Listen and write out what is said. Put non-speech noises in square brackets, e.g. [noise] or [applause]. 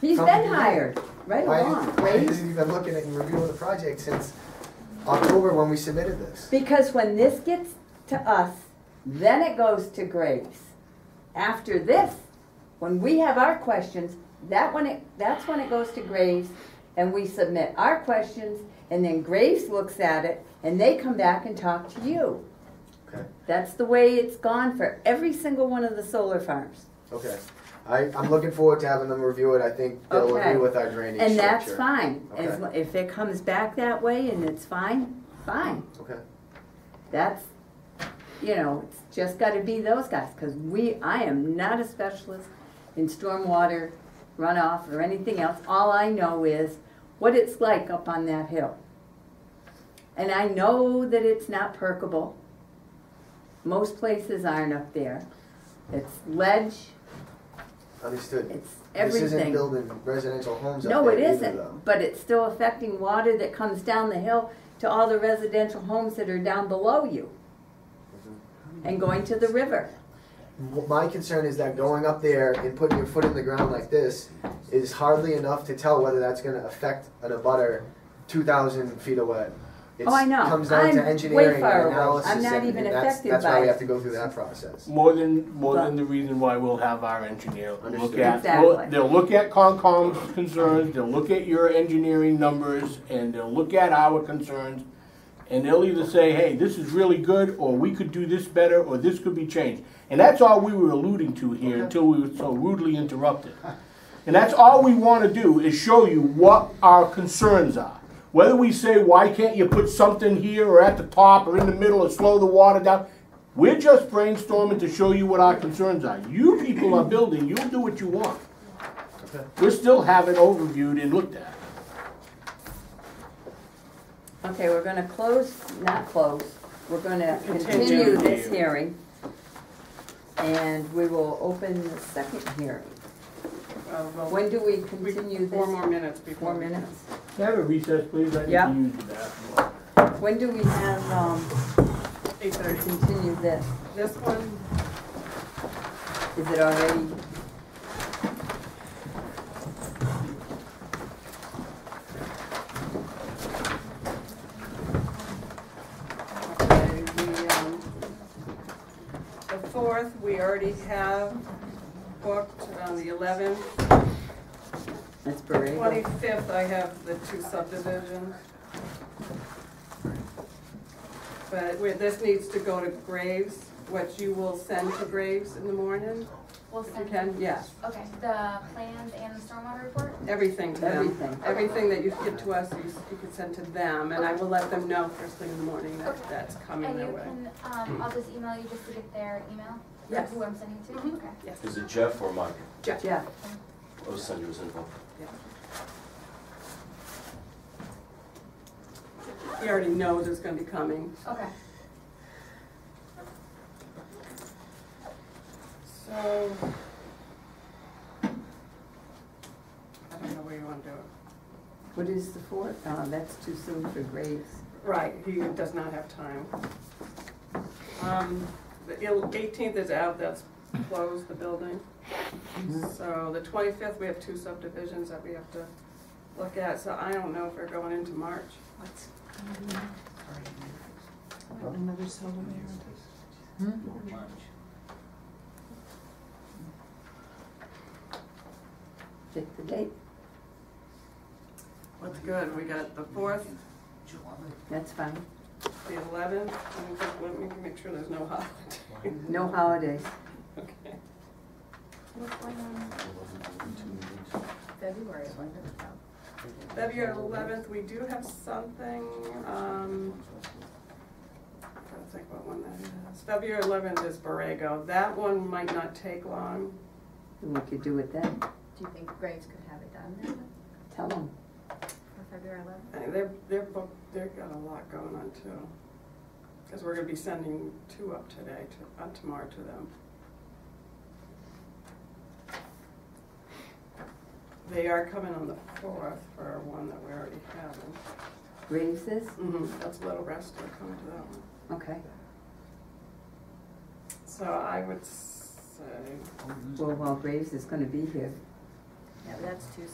He's come- been hired, right Why, along, why right? have you been looking at and reviewing the project since October when we submitted this? Because when this gets to us, then it goes to Graves. After this, when we have our questions, that when it, that's when it goes to Graves and we submit our questions and then Graves looks at it and they come back and talk to you. Okay. That's the way it's gone for every single one of the solar farms. Okay, I, I'm looking forward to having them review it, I think they'll Okay. agree with our drainage structure. And that's fine. As Okay. lo- If it comes back that way and it's fine, fine. Okay, That's, you know, it's just gotta be those guys, cause we, I am not a specialist in stormwater runoff or anything else. All I know is what it's like up on that hill. And I know that it's not perkable. Most places aren't up there. It's ledge, understood. it's This everything. isn't building residential homes up No, there it either, though. isn't, but it's still affecting water that comes down the hill to all the residential homes that are down below you and going to the river. W- My concern is that going up there and putting your foot in the ground like this is hardly enough to tell whether that's gonna affect an abutter two thousand feet away. It's- Oh, I know. Comes down I'm to way engineering far and away. analysis, I'm not and even and that's, affected that's by why we it. have to go through that process. More than, more But- than the reason why we'll have our engineer look Understood. at, Exactly. well, they'll look at Concom's concerns, they'll look at your engineering numbers, and they'll look at our concerns. And they'll either say, hey, this is really good, or we could do this better, or this could be changed. And that's all we were alluding to here until we were so rudely interrupted. And that's all we want to do is show you what our concerns are. Whether we say, why can't you put something here or at the top or in the middle or slow the water down? We're just brainstorming to show you what our concerns are. You people are building, you'll do what you want. We still haven't overviewed and looked at. Okay, we're gonna close, not close, we're gonna Continue. continue this hearing. And we will open the second hearing. Uh, well, When do we we- continue Four this? more minutes before. Four minutes? Can I have a recess, please? I need Yeah. to use the bathroom. When do we have, um, Eight thirty. continue this? This one, Is it already? okay, we, um, the fourth, we already have booked on the eleventh. That's Borrego. Twenty-fifth, I have the two subdivisions. But where this needs to go to Graves, what you will send to Graves in the morning, We'll if you send, can, yeah, okay, the plans and the stormwater report? everything to them. Everything. Everything that you give to us, you s- you can send to them, and I will let them know first thing in the morning that Okay. that's coming And their you way. can, um, I'll just email you just to get their email? Or Yes. Who I'm sending to? Mhm. Okay. Yes, Is it Jeff or Mike? Jeff. Jeff, I'll send you his info. He already knows it's gonna be coming. Okay. So. I don't know where you wanna do it. what is the fourth? Uh, that's too soon for Graves. Right, he does not have time. Um, the eighteenth is out, that's closed, the building. So the twenty-fifth, we have two subdivisions that we have to look at, so I don't know if we're going into March. Pick the date, What's good, we got the fourth, that's fine. the eleventh, let me make sure there's no holiday. No holidays. [laughs] Okay. What's going on? February, I wonder. February eleventh, we do have something, um, I'm trying to think what one that is. February eleventh is Borrego, that one might not take long. And we could do it then, Do you think Graves could have it done then, tell them. for February eleventh? I mean, They're, they're booked, they've got a lot going on too. Cause we're gonna be sending two up today, to, uh, tomorrow to them. They are coming on the fourth for one that we already having. Graves is, Mm-hmm. That's Little Rest, they're coming to that one. okay, So I would say, well, while Graves is gonna be here, Yeah, but that's too